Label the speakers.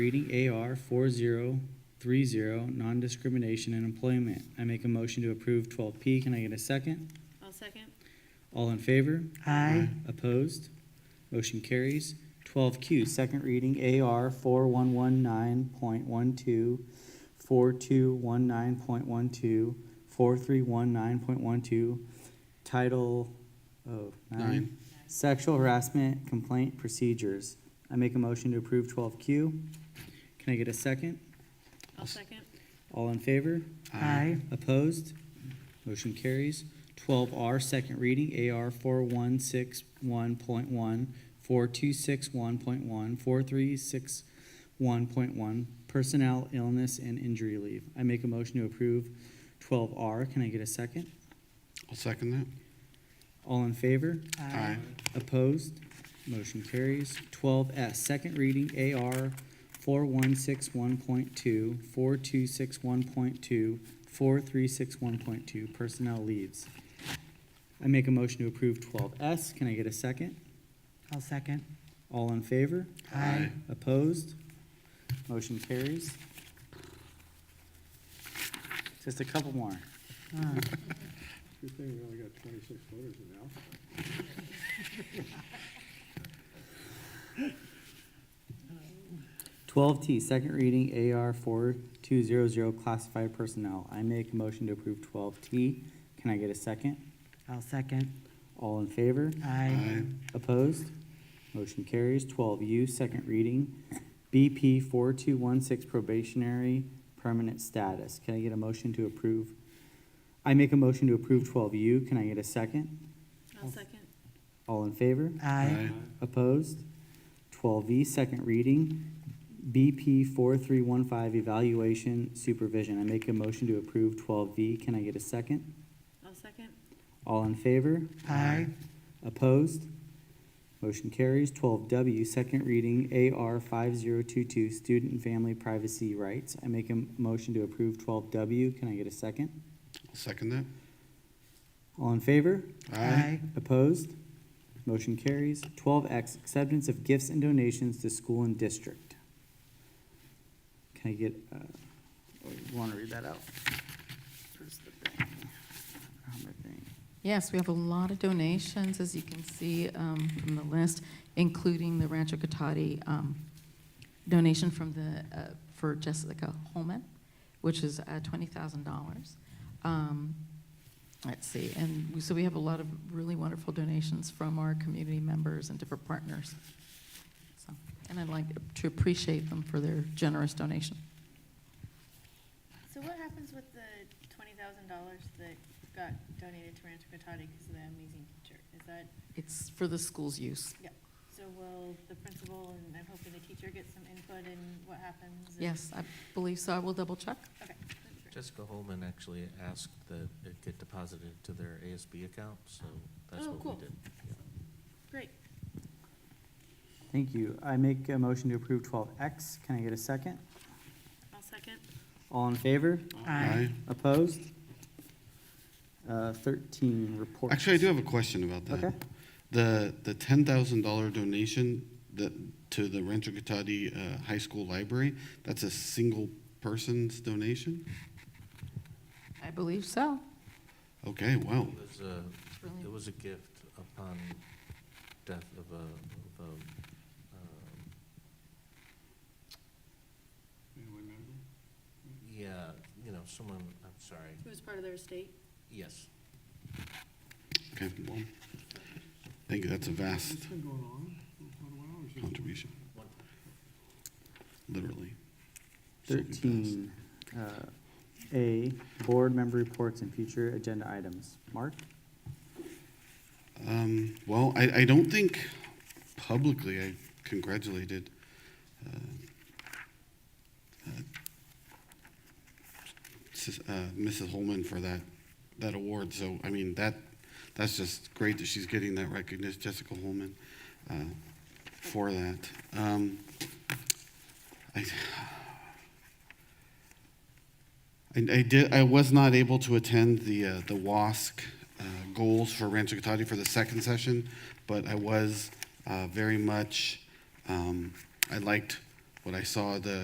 Speaker 1: Reading AR four zero three zero, non-discrimination in employment. I make a motion to approve twelve P. Can I get a second?
Speaker 2: I'll second.
Speaker 1: All in favor?
Speaker 3: Aye.
Speaker 1: Opposed? Motion carries. Twelve Q, second reading AR four one one nine point one two, four two one nine point one two, four three one nine point one two, title, oh, nine.
Speaker 4: Nine.
Speaker 1: Sexual harassment complaint procedures. I make a motion to approve twelve Q. Can I get a second?
Speaker 2: I'll second.
Speaker 1: All in favor?
Speaker 3: Aye.
Speaker 1: Opposed? Motion carries. Twelve R, second reading, AR four one six one point one, four two six one point one, four three six one point one, personnel illness and injury leave. I make a motion to approve twelve R. Can I get a second?
Speaker 4: I'll second that.
Speaker 1: All in favor?
Speaker 4: Aye.
Speaker 1: Opposed? Motion carries. Twelve S, second reading AR four one six one point two, four two six one point two, four three six one point two, personnel leaves. I make a motion to approve twelve S. Can I get a second?
Speaker 3: I'll second.
Speaker 1: All in favor?
Speaker 3: Aye.
Speaker 1: Opposed? Motion carries. Just a couple more.
Speaker 3: Uh,
Speaker 5: Good thing we only got twenty-six voters in now.
Speaker 1: Twelve T, second reading AR four two zero zero classified personnel. I make a motion to approve twelve T. Can I get a second?
Speaker 3: I'll second.
Speaker 1: All in favor?
Speaker 3: Aye.
Speaker 1: Opposed? Motion carries. Twelve U, second reading BP four two one six probationary permanent status. Can I get a motion to approve? I make a motion to approve twelve U. Can I get a second?
Speaker 2: I'll second.
Speaker 1: All in favor?
Speaker 3: Aye.
Speaker 1: Opposed? Twelve V, second reading, BP four three one five evaluation supervision. I make a motion to approve twelve V. Can I get a second?
Speaker 2: I'll second.
Speaker 1: All in favor?
Speaker 3: Aye.
Speaker 1: Opposed? Motion carries. Twelve W, second reading, AR five zero two two, student and family privacy rights. I make a m- motion to approve twelve W. Can I get a second?
Speaker 4: I'll second that.
Speaker 1: All in favor?
Speaker 3: Aye.
Speaker 1: Opposed? Motion carries. Twelve X, acceptance of gifts and donations to school and district. Can I get, uh, or you wanna read that out? Where's the thing? I don't have my thing.
Speaker 6: Yes, we have a lot of donations, as you can see um, from the list, including the Rancho Cotati um, donation from the, uh, for Jessica Holman, which is uh, $20,000. Um, Let's see, and we- so we have a lot of really wonderful donations from our community members and different partners. So, And I'd like to appreciate them for their generous donation.
Speaker 2: So what happens with the twenty thousand dollars that got donated to Rancho Cotati because of the amazing teacher? Is that,
Speaker 6: It's for the school's use.
Speaker 2: yeah, so will the principal and I'm hoping the teacher get some input in what happens? and-
Speaker 6: Yes, I believe so. I will double check.
Speaker 2: Okay. that's great.
Speaker 7: Jessica Holman actually asked that it get deposited to their ASB account, so that's
Speaker 2: Oh,
Speaker 7: what
Speaker 2: cool.
Speaker 7: we did. Yeah.
Speaker 2: Great.
Speaker 1: Thank you. I make a motion to approve twelve X. Can I get a second?
Speaker 2: I'll second.
Speaker 1: All in favor?
Speaker 3: Aye.
Speaker 1: Opposed? Uh, thirteen, reports.
Speaker 4: Actually, I do have a question about that.
Speaker 1: Okay.
Speaker 4: The, the ten thousand dollar donation that, to the Rancho Cotati, uh, High School Library, that's a single person's donation?
Speaker 6: I believe so.
Speaker 4: Okay, wow.
Speaker 7: It was a, it was a gift upon death of a, of a, um, yeah, you know, someone, I'm sorry,
Speaker 2: Who's part of their estate?
Speaker 7: yes.
Speaker 4: Okay, well, thank you, that's a vast
Speaker 5: It's been going on for quite a while, it's just-
Speaker 4: contribution. Literally. So vast.
Speaker 1: Thirteen, uh, A, board member reports and future agenda items. Mark?
Speaker 4: Um, well, I, I don't think publicly I congratulated uh, uh, Sis- uh, Mrs. Holman for that that award. So I mean that that's just great that she's getting that recognition, Jessica Holman, uh, for that. Um, I, I, I did. I was not able to attend the uh, the WASC uh, goals for Rancho Cotati for the second session, but I was uh, very much. Um, I liked when I saw the